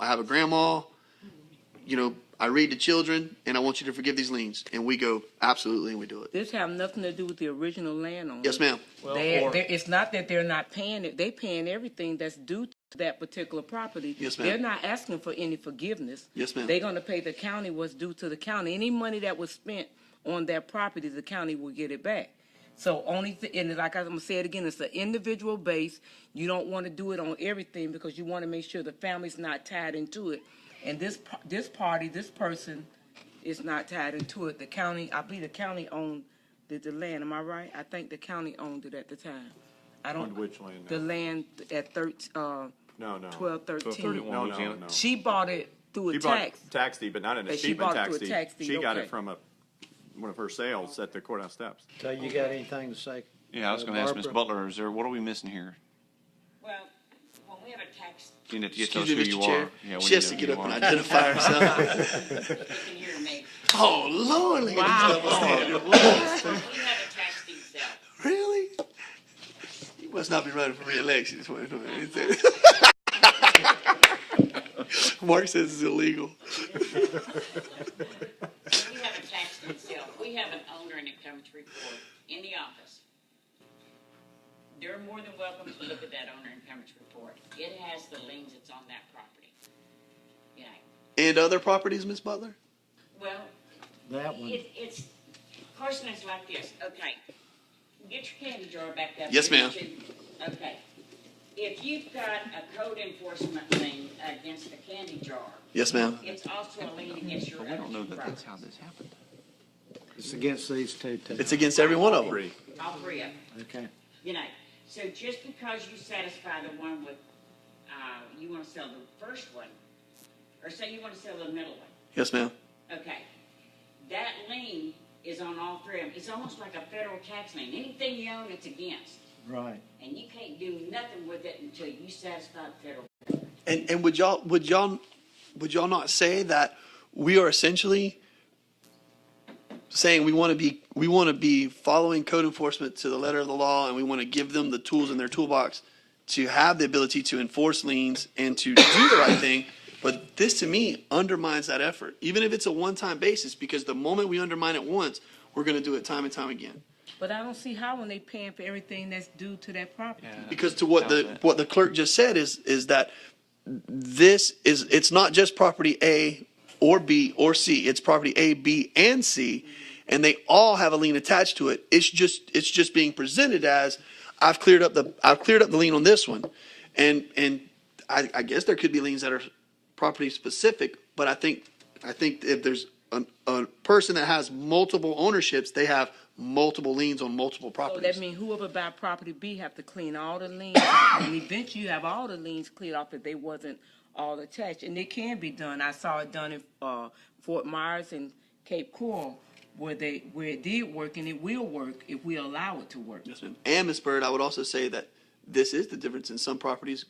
I have a grandma. You know, I read to children, and I want you to forgive these liens. And we go, absolutely, and we do it. This have nothing to do with the original landowner. Yes, ma'am. Well, They're- or- they're- it's not that they're not paying it. They paying everything that's due to that particular property. Yes, ma'am. They're not asking for any forgiveness. Yes, ma'am. They're gonna pay the county what's due to the county. Any money that was spent on that property, the county will get it back. So only, th- and like I'm gonna say it again, it's an individual base. You don't wanna do it on everything because you wanna make sure the family's not tied into it. And this, p- this party, this person is not tied into it. The county, I believe the county owned the, the land, am I right? I think the county owned it at the time. I don't. Owned which land now? The land at thirteen, uh, No, no. 12, 13. No, no, no. she bought it through a She bought tax. Tax deed, but not an But she achievement bought it tax through a deed. tax deed, She got okay. it from a, one of her sales at the courthouse steps. So you got anything to say? Yeah, I was uh, gonna ask Ms. Barbara? Butler, is there, what are we missing here? Well, when we have a tax, You need to get Excuse those me, who you Mr. Chair. are. Yeah, we she need has to to know get who up you and are. identify herself. we can hear to make. oh, Lord. look at this stuff. When we have a tax deed sale, Really? You must not be running for reelection. is what it is. Mark says it's illegal. when we have a tax deed sale, if we have an owner and it comes to report in the office. They're more than welcome to look at that owner and come to report. It has the liens that's on that property. Yeah, And other properties, Miss Butler? well, That one. it, it's, question is like this, okay. Get your candy jar back up. Yes, ma'am. Okay. If you've got a code enforcement lien against the candy jar, Yes, ma'am. It's also a lien against your But we don't know own that that's how property, this happened. It's against these two, too. It's against every one of them. Three. all three of them, Okay. you know. So just because you satisfy the one with, uh, you wanna sell the first one, or say you wanna sell the middle one, Yes, ma'am. okay. That lien is on all three of them. It's almost like a federal tax lien. Anything you own, it's against. Right. And you can't do nothing with it until you satisfy the federal. And and would y'all would y'all would y'all not say that we are essentially saying we want to be we want to be following code enforcement to the letter of the law and we want to give them the tools in their toolbox to have the ability to enforce liens and to do the right thing but this to me undermines that effort even if it's a one-time basis because the moment we undermine it once we're going to do it time and time again But I don't see how when they paying for everything that's due to that property. because to what the what the clerk just said is is that this is it's not just property A or B or C. It's property A, B, and C, and they all have a lien attached to it. It's just it's just being presented as I've cleared up the I've cleared up the lien on this one, and and I, I guess there could be liens that are property specific, but I think I think if there's a, a person that has multiple ownerships, they have multiple liens on multiple So properties. that means whoever buy property B have to clean all the liens, and eventually you have all the liens cleared off if they wasn't all attached, and it can be done. I saw it done in uh, Fort Myers and Cape Coral, where they where it did work, and it will work if we allow it to work. Yes, ma'am. And Ms. Bird, I would also say that this is the difference in some properties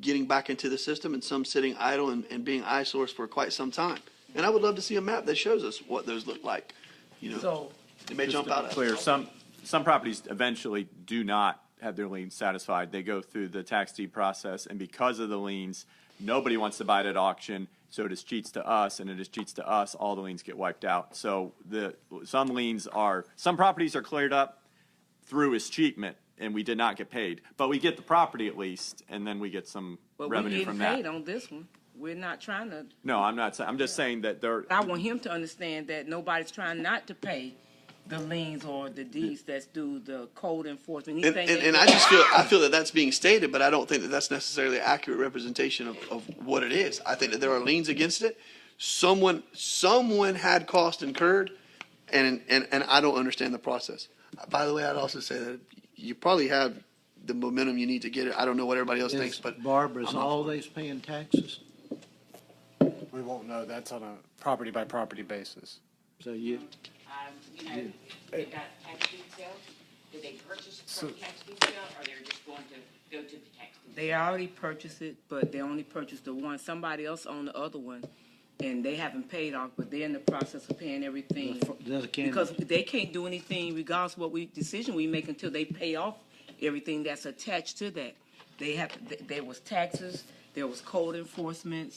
getting back into the system and some sitting idle and, and being eyesores for quite some time. And I would love to see a map that shows us what those look like. You know, So it may Just jump to be out at us. clear, some, some properties eventually do not have their liens satisfied. They go through the tax deed process, and because of the liens, nobody wants to buy it at auction, so it is cheats to us, and it is cheats to us, all the liens get wiped out. So the, some liens are, some properties are cleared up through escheatment, and we did not get paid. But we get the property at least, and then we get some But we're revenue getting from that. paid on this one. We're not trying to, No, I'm not, sa- I'm just saying that there, I want him to understand that nobody's trying not to pay the liens or the deeds that's due the code enforcement. And, and, and I just feel I feel that that's being stated, but I don't think that that's necessarily an accurate representation of, of what it is. I think that there are liens against it. Someone someone had cost incurred, and and and I don't understand the process. By the way, I'd also say that you probably have the momentum you need to get it. I don't know what everybody else thinks, Is but Barbara's I'm not- all these paying taxes? We won't know. That's on a property by property basis. So you, Um, you know, they got tax deed sales, did they purchase from tax deed sale, or they're just going to go to the tax deed? They already purchased it, but they only purchased the one. Somebody else owned the other one, and they haven't paid off, but they're in the process of paying everything. The other candy. Because they can't do anything regardless of what we, decision we make until they pay off everything that's attached to that. They have, th- there was taxes, there was code enforcements,